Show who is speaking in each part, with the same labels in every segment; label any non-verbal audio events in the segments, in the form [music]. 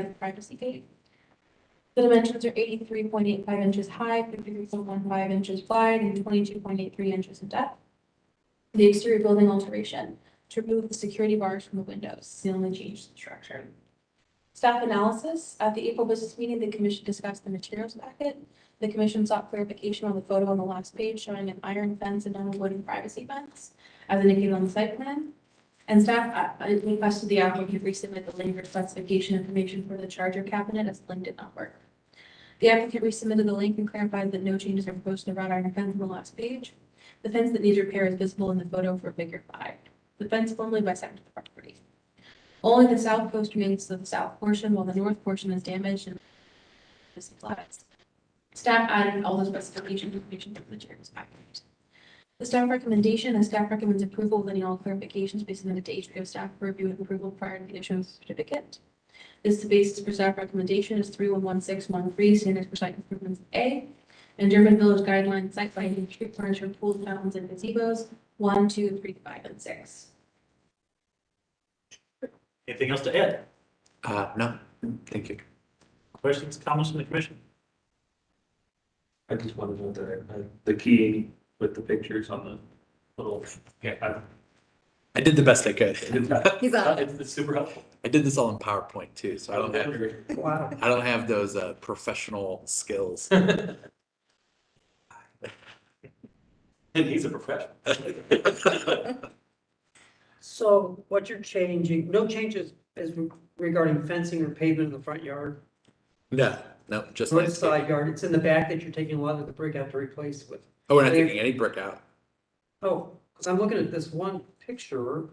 Speaker 1: and privacy gate. The dimensions are eighty-three point eight five inches high, fifty-three point one five inches wide, and twenty-two point eight three inches in depth. The exterior building alteration to remove the security bars from the windows, the only change to the structure. Staff analysis, at the April business meeting, the commission discussed the materials packet. The commission sought clarification on the photo on the last page showing an iron fence and a wooden privacy fence as indicated on the site plan. And staff uh, uh, requested the applicant resubmit the link for specification information for the charger cabinet as the link did not work. The applicant resubmitted the link and clarified that no changes are proposed to the wrought iron fence on the last page. The fence that needs repair is visible in the photo for figure five. The fence formerly bisected the property. Only the south post remains to the south portion while the north portion is damaged and is collapsed. Staff added all the specification information to the chair's package. The staff recommendation, the staff recommends approval with any all clarifications be submitted to HBO staff for review and approval prior to the issuance of certificate. This is the basis for staff recommendation is three one one six one three, standards for site improvements A. And Durban Village guidelines, site lighting, street furniture, pools, fountains, and gazebos, one, two, three, five, and six.
Speaker 2: Anything else to add?
Speaker 3: Uh, no, thank you.
Speaker 2: Questions, comments from the commission?
Speaker 4: I just wanted to know the, uh, the key with the pictures on the little. Yeah. I-
Speaker 3: I did the best I could.
Speaker 5: [laughs] He's on.
Speaker 4: It's it's super helpful.
Speaker 3: I did this all in PowerPoint too, so I don't have,
Speaker 4: Wow.
Speaker 3: I don't have those, uh, professional skills.
Speaker 4: And he's a professional.
Speaker 6: So what you're changing, no changes is regarding fencing or pavement in the front yard,
Speaker 3: No, no, just
Speaker 6: or the
Speaker 3: landscape.
Speaker 6: side yard, it's in the back that you're taking a lot of the brick out to replace with.
Speaker 3: Oh, we're not taking any brick out.
Speaker 6: Oh, because I'm looking at this one picture.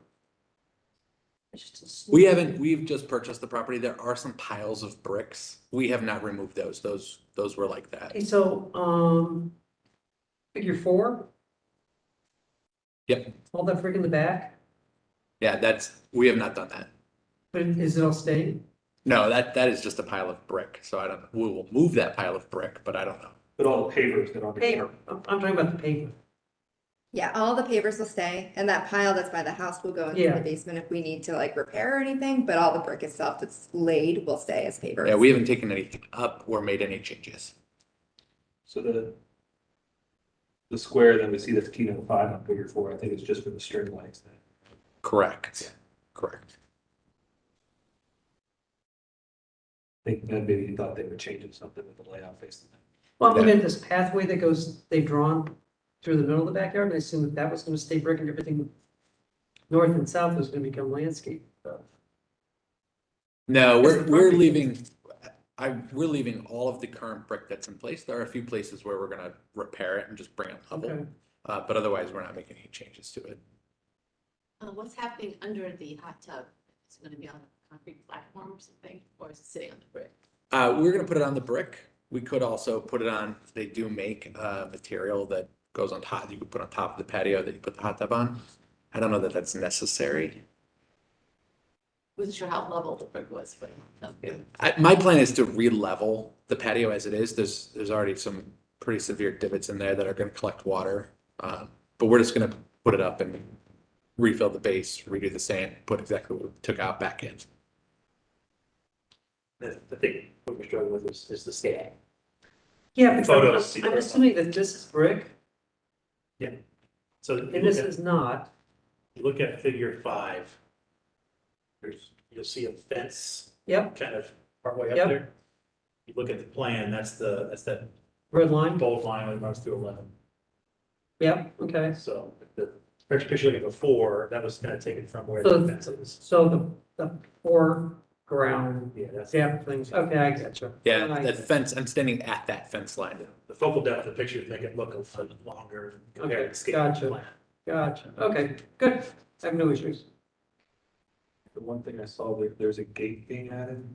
Speaker 6: It's just a sliver.
Speaker 3: We haven't, we've just purchased the property. There are some piles of bricks. We have not removed those. Those, those were like that.
Speaker 6: Okay, so, um, figure four?
Speaker 3: Yep.
Speaker 6: All that brick in the back,
Speaker 3: Yeah, that's, we have not done that.
Speaker 6: but is it all staying?
Speaker 3: No, that, that is just a pile of brick, so I don't, we will move that pile of brick, but I don't know.
Speaker 4: But all the pavers that are.
Speaker 6: Pavement, I'm, I'm talking about the pavement.
Speaker 5: Yeah, all the pavers will stay and that pile that's by the house will go into
Speaker 6: Yeah.
Speaker 5: the basement if we need to like repair or anything, but all the brick itself that's laid will stay as pavers.
Speaker 3: Yeah, we haven't taken anything up or made any changes.
Speaker 4: So the. The square that we see that's key number five on figure four, I think it's just for the string lights.
Speaker 3: Correct, correct.
Speaker 4: I think that maybe you thought they were changing something with the layout facing.
Speaker 6: Well, I'm looking at this pathway that goes, they've drawn through the middle of the backyard, and I assume that that was gonna stay brick and everything north and south was gonna become landscape.
Speaker 3: No,
Speaker 6: Is
Speaker 3: we're,
Speaker 6: the
Speaker 3: we're
Speaker 6: property-
Speaker 3: leaving, I, we're leaving all of the current brick that's in place. There are a few places where we're gonna repair it and just bring it level.
Speaker 6: Okay.
Speaker 3: Uh, but otherwise, we're not making any changes to it.
Speaker 7: Uh, what's happening under the hot tub? Is it gonna be on a concrete platform or something, or is it sitting on the brick?
Speaker 3: Uh, we're gonna put it on the brick. We could also put it on, they do make, uh, material that goes on top, you could put on top of the patio that you put the hot tub on. I don't know that that's necessary.
Speaker 7: Wasn't sure how level the brick was, but. um,
Speaker 3: I, my plan is to re-level the patio as it is. There's, there's already some pretty severe divots in there that are gonna collect water. Uh, but we're just gonna put it up and refill the base, redo the sand, put exactly what we took out back in.
Speaker 4: I think what we're struggling with is, is the scale.
Speaker 6: Yeah, but I'm-
Speaker 4: Photos, see
Speaker 6: I'm
Speaker 4: that.
Speaker 6: assuming that this is brick
Speaker 2: So
Speaker 6: and this
Speaker 2: if
Speaker 6: is not.
Speaker 2: you look at figure five, there's, you'll see a fence
Speaker 6: Yep,
Speaker 2: kind of partway up
Speaker 6: Yep.
Speaker 2: there. You look at the plan, that's the, that's that
Speaker 6: red line.
Speaker 2: bold line that runs through eleven.
Speaker 6: Yep, okay.
Speaker 2: So the first picture you look at before, that was kind of taken from where
Speaker 6: So-
Speaker 2: the fence is.
Speaker 6: So the, the foreground,
Speaker 2: Yeah, that's,
Speaker 6: yeah, things, okay, I gotcha.
Speaker 3: Yeah,
Speaker 6: Nice.
Speaker 3: that fence, I'm standing at that fence line.
Speaker 2: the focal depth of the picture, make it look a little longer compared to the scale of the
Speaker 6: gotcha.
Speaker 2: plan.
Speaker 6: Gotcha, okay, good. I have no issues.
Speaker 4: The one thing I saw, there, there's a gate being added.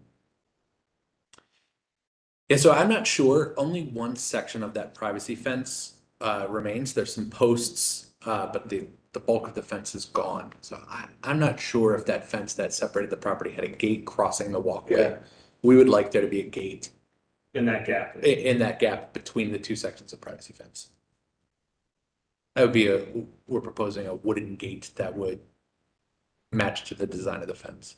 Speaker 3: Yeah, so I'm not sure. Only one section of that privacy fence uh, remains. There's some posts, uh, but the, the bulk of the fence is gone. So I, I'm not sure if that fence that separated the property had a gate crossing the walkway.
Speaker 4: Yeah.
Speaker 3: We would like there to be a gate
Speaker 4: In that gap.
Speaker 3: i- in that gap between the two sections of privacy fence. That would be a, we're proposing a wooden gate that would match to the design of the fence.